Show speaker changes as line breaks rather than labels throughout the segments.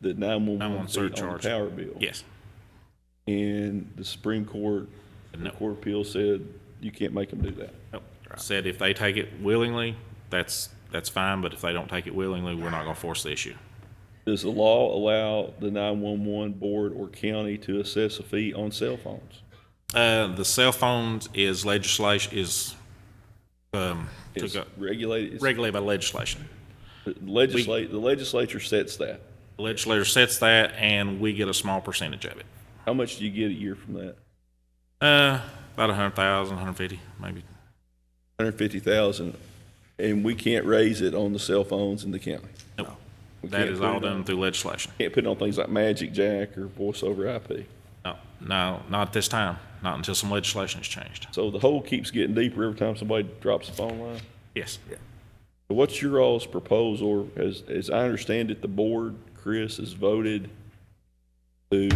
the 911 fee on
surcharge.
the power bill.
Yes.
And the Supreme Court, the
No.
Court of Appeal said, you can't make them do that.
Nope. Said if they take it willingly, that's, that's fine, but if they don't take it willingly, we're not gonna force the issue.
Does the law allow the 911 board or county to assess a fee on cell phones?
Uh, the cell phones is legislation, is, um, took
It's
up-
regulated, it's-
regulated by legislation.
legislate, the legislature sets that.
The Legislature sets that and we get a small percentage of it.
How much do you get a year from that?
Uh, about a hundred thousand, hundred fifty, maybe.
150,000, and we can't raise it on the cell phones in the county.
Nope.
We
That
can't
is
put
all
it on-
done through legislation.
Can't put it on things like Magic Jack or Voice over IP.
No, no, not at this time. Not until some legislation is changed.
So the hole keeps getting deeper every time somebody drops a phone line.
Yes.
What's your all's proposal, as, as I understand it, the board, Chris, has voted to,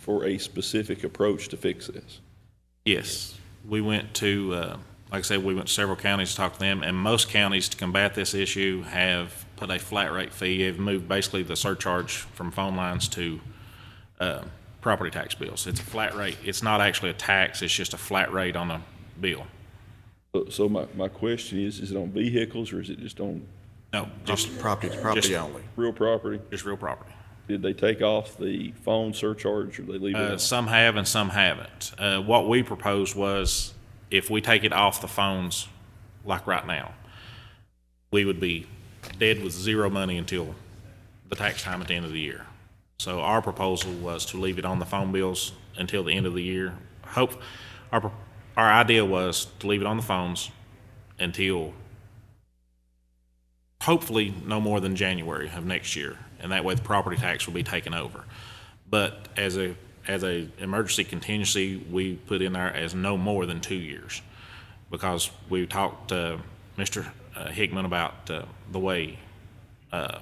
for a specific approach to fix this?
Yes. We went to, uh, like I said, we went to several counties to talk to them, and most counties to combat this issue have put a flat rate fee. Have moved basically the surcharge from phone lines to uh, property tax bills. It's a flat rate. It's not actually a tax. It's just a flat rate on a bill.
So- So my, my question is, is it on vehicles or is it just on
No, just
Property, property
just-
only.
real property?
just real property.
Did they take off the phone surcharge or they leave
Uh,
it?
Some have and some haven't. Uh, What we proposed was if we take it off the phones, like right now, we would be dead with zero money until the tax time at the end of the year. So our proposal was to leave it on the phone bills until the end of the year. Hope, our, pro- our idea was to leave it on the phones until hopefully no more than January of next year, and that way the property tax will be taken over. But as a, as a emergency contingency, we put in there as no more than two years, because we talked to Mr. Hickman about uh, the way uh,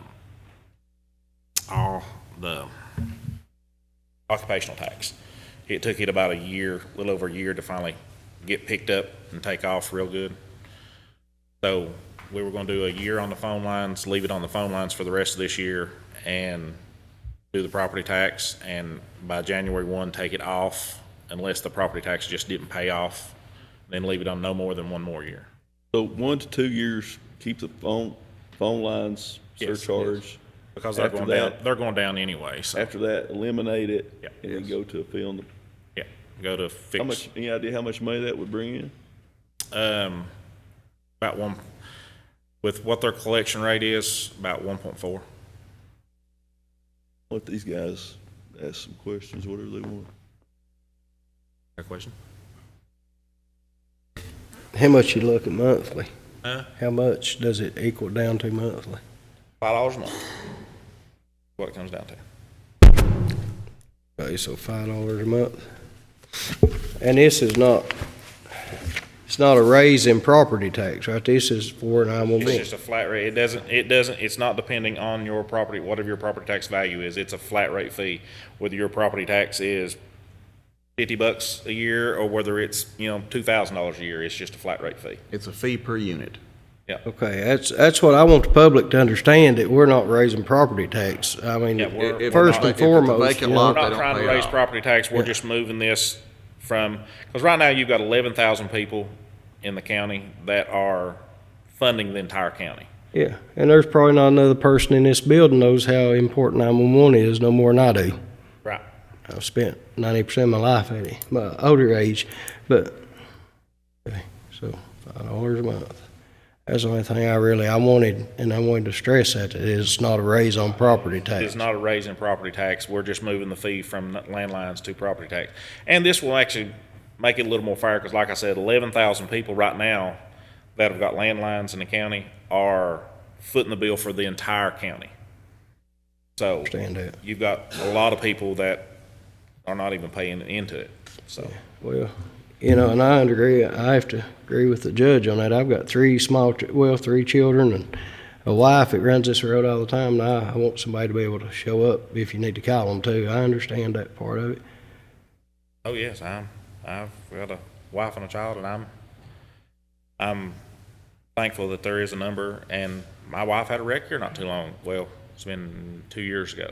all the occupational tax. It took it about a year, a little over a year to finally get picked up and take off real good. So we were going to do a year on the phone lines, leave it on the phone lines for the rest of this year and do the property tax. And by January 1, take it off unless the property tax just didn't pay off, then leave it on no more than one more year.
So one to two years, keep the phone, phone lines
Yes,
surcharge.
Because they're
After
going down,
that-
they're going down anyway. So,
After that, eliminate it
Yeah.
and then go to a fee on the
yeah, go to
How
fix,
much, any idea how much money that would bring in?
um, about one, with what their collection rate is, about 1.4.
Let these guys ask some questions, whatever they want.
Got a question?
How much you look at monthly?
Huh?
How much does it equal down to monthly?
$5 a month. What it comes down to.
Okay, so five dollars a month. And this is not, it's not a raise in property tax, right? This is for an one
It's
B.
just a flat rate. It doesn't, it doesn't, it's not depending on your property, whatever your property tax value is. It's a flat rate fee, whether your property tax is fifty bucks a year or whether it's, you know, two thousand dollars a year. It's just a flat rate fee.
It's a fee per unit.
Okay, that's, that's what I want the public to understand, that we're not raising property tax. I mean,
Yeah, we're- If- if we're
first and
not- if it's a
foremost,
vacant
you
lot,
We're
know,
they
not
don't
trying to
pay
raise
off.
property tax. We're just moving this from, because right now you've got eleven thousand people in the county that are funding the entire county.
yeah. And there's probably not another person in this building knows how important nine-one-one is, no more than I do.
Right.
I've spent ninety percent of my life at it, my older age, but okay, so five dollars a month. That's the only thing I really I wanted, and I wanted to stress that it is not a raise on property
It's
tax.
not a raise in property tax. We're just moving the fee from landlines to property tax. And this will actually make it a little more fair, because like I said, eleven thousand people right now that have got landlines in the county are footing the bill for the entire county. So
Understand that?
you've got a lot of people that are not even paying into it, so.
Well, you know, and I agree. I have to agree with the judge on that. I've got three small, ch- well, three children and a wife that runs this road all the time. And I, I want somebody to be able to show up if you need to call them too. I understand that part of it.
Oh yes, I'm. I've got a wife and a child, and I'm. I'm thankful that there is a number. And my wife had a wreck here not too long. Well, it's been two years ago,